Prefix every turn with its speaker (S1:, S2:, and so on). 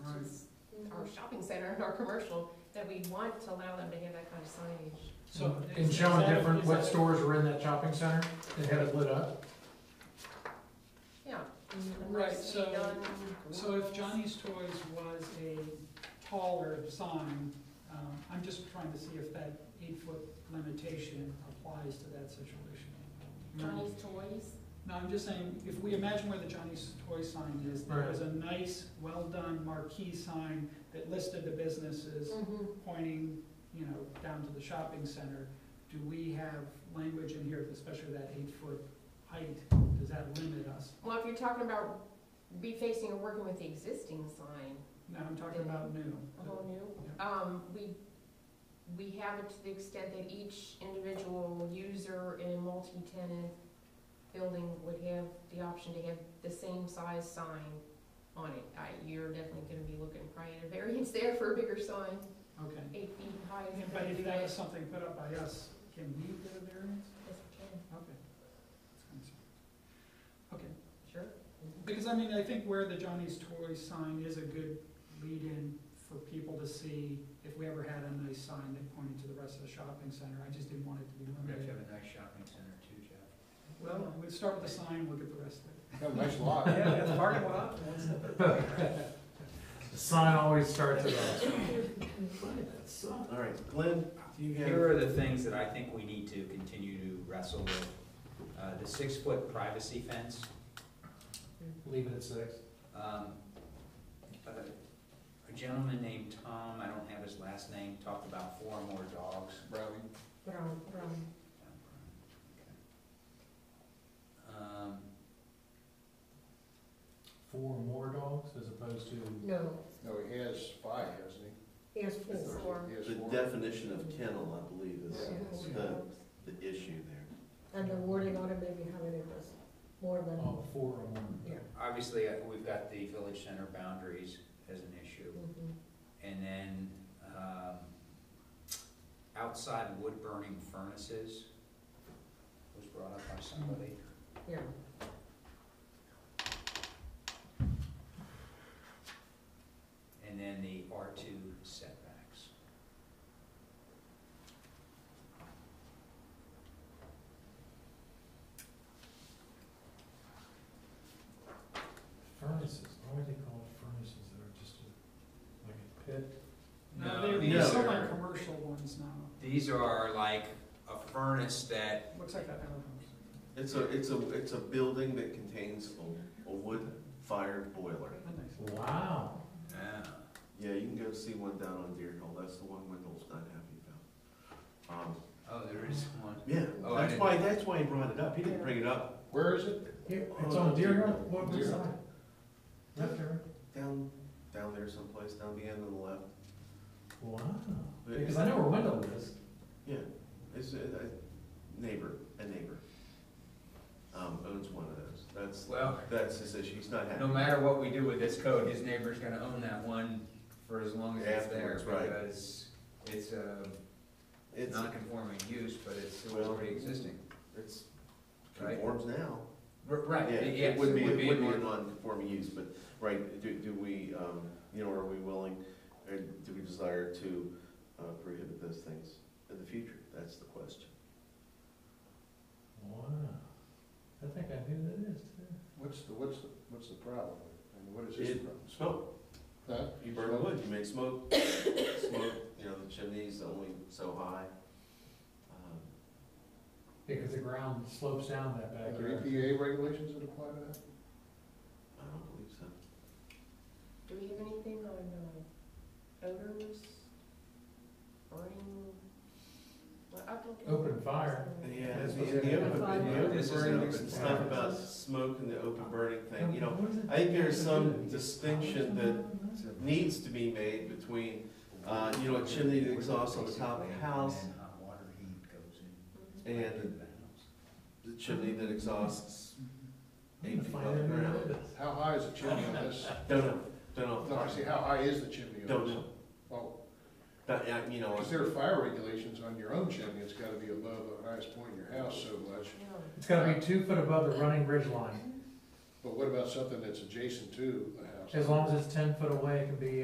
S1: shopping center and our commercial, that we want to allow them to have that kind of signage.
S2: So
S3: And
S2: is-
S3: show
S2: is
S3: them
S2: that-
S3: different,
S2: is
S3: what
S2: that-
S3: stores are in that shopping center and have it lit up.
S1: Yeah.
S2: Right, so, so if Johnny's Toys was a taller sign, um, I'm just trying to see if that eight-foot limitation applies to that situation.
S4: Johnny's Toys.
S2: No, I'm just saying, if we imagine where the Johnny's Toy sign is, there was a nice, well-done marquee sign that listed the businesses
S1: Mhm.
S2: pointing, you know, down to the shopping center. Do we have language in here, especially that eight-foot height, does that limit us?
S1: Well, if you're talking about refacing or working with the existing sign,
S2: No, I'm talking about new.
S1: a whole new, um, we, we have it to the extent that each individual user in a multi-tenant building would have the option to have the same size sign on it. I, you're definitely gonna be looking probably at a variance there for a bigger sign,
S2: Okay.
S1: eight feet high. is
S2: But
S1: gonna be
S2: if that
S1: big.
S2: was something put up by us, can we get a variance?
S1: Yes, we can.
S2: Okay. That's concerning. Okay.
S1: Sure.
S2: Because I mean, I think where the Johnny's Toy sign is a good lead-in for people to see if we ever had a nice sign that pointed to the rest of the shopping center, I just didn't want it to be
S5: We have to
S2: limited.
S5: have a nice shopping center too, Jeff.
S2: Well, we start with the sign, look at the rest of it.
S6: Got a Oh, nice lot.
S5: Yeah, the parking lot.
S3: The sign always starts at us.
S6: All right, Glenn, do you have?
S5: Here are the things that I think we need to continue to wrestle with. Uh, the six-foot privacy fence,
S3: Leave it at six.
S5: um, uh, a gentleman named Tom, I don't have his last name, talked about four or more dogs.
S6: Browning.
S4: Brown, brown.
S5: Um,
S3: Four more dogs as opposed to,
S4: No,
S6: No, he has five, hasn't he?
S4: he has four.
S1: Four.
S6: He has
S7: The
S6: four.
S7: definition of kennel, I believe, is
S4: Yes.
S7: the, the issue there.
S4: And the wording on it maybe how many was more than,
S3: oh, four or more.
S4: yeah.
S5: obviously, uh, we've got the village center boundaries as an issue.
S4: mhm.
S5: And then, um, outside wood burning furnaces was brought up by somebody.
S4: Yeah,
S5: And then the R two setbacks.
S3: Furnaces, why are they called furnaces that are just a- like a pit?
S2: No, they're, they're
S5: these
S2: still
S5: are-
S2: like commercial ones now,
S5: These are like a furnace that,
S2: looks like that house.
S7: It's a, it's a, it's a building that contains a, a wood-fired boiler.
S3: Wow.
S5: uh,
S7: Yeah, you can go see one down on Deer Hill, that's the one Wendell's not happy about. Um,
S5: oh, there is one.
S7: yeah,
S5: Oh, I
S7: that's
S5: didn't-
S7: why, that's why he brought it up, he didn't bring it up
S6: Where is it?
S3: It's on Deer Hill, what was
S6: Deer.
S3: that? Left there.
S7: down, down there someplace, down the end on the left.
S3: Wow.
S7: But-
S3: Because I know where Wendell is.
S7: Yeah, it's a, a neighbor, a neighbor, um, owns one of those, that's,
S5: Well,
S7: that's his issue, he's not happy.
S5: no matter what we do with this code, his neighbor's gonna own that one for as long as it's there.
S7: Afterwards, right.
S5: Because it's a
S7: It's,
S5: non-conforming use, but it's still
S7: Well-
S5: already existing.
S7: it's
S5: Right.
S7: conforms now.
S5: R- Right,
S7: Yeah,
S5: yes,
S7: it would be, it would be a
S5: an-
S7: non-conforming use, but, right, do, do we, um, you know, are we willing, or do we desire to uh, prohibit those things in the future? That's the question.
S3: Wow. I think I knew that is too.
S6: What's the, what's the, what's the problem? And what is his
S7: It-
S6: problem?
S7: Smoke,
S6: Huh?
S7: you burn wood, you make smoke, smoke, you know, the chimney's only so high. Um,
S3: Because the ground slopes down that
S6: Are there
S3: backyard.
S6: EPA regulations that apply to that?
S7: I don't believe so.
S1: Do we have anything on uh, odors, burning? uh, Well, I don't-
S3: Open fire.
S7: Yeah,
S1: Mm-hmm.
S3: That's
S7: the,
S3: what's
S7: the
S3: in it.
S7: open, the open
S5: This is an
S7: burning,
S5: open
S7: some stuff
S3: fire.
S7: about smoke and the open burning thing, you know,
S3: What is it?
S7: I think there's some
S3: It's-
S7: distinction needs to be made between Uh, you know, a chimney that exhausts on the top of the house.
S5: And hot water heat goes in
S7: And-
S5: to the house.
S7: the chimney that exhausts.
S3: I'm gonna
S7: eight feet
S3: find
S7: off the
S3: out where
S7: ground.
S3: it is.
S6: How high is the chimney on this?
S7: Don't know, don't know.
S6: No, I see, how high is the chimney on
S7: Don't
S6: this?
S7: know.
S6: Oh,
S7: But, uh, you know,
S6: because there are fire regulations on your own chimney, it's gotta be above the highest point in your house so much.
S1: No.
S3: It's gotta be two foot above the running ridge line.
S6: But what about something that's adjacent to the house?
S3: As long as it's ten foot away, it can be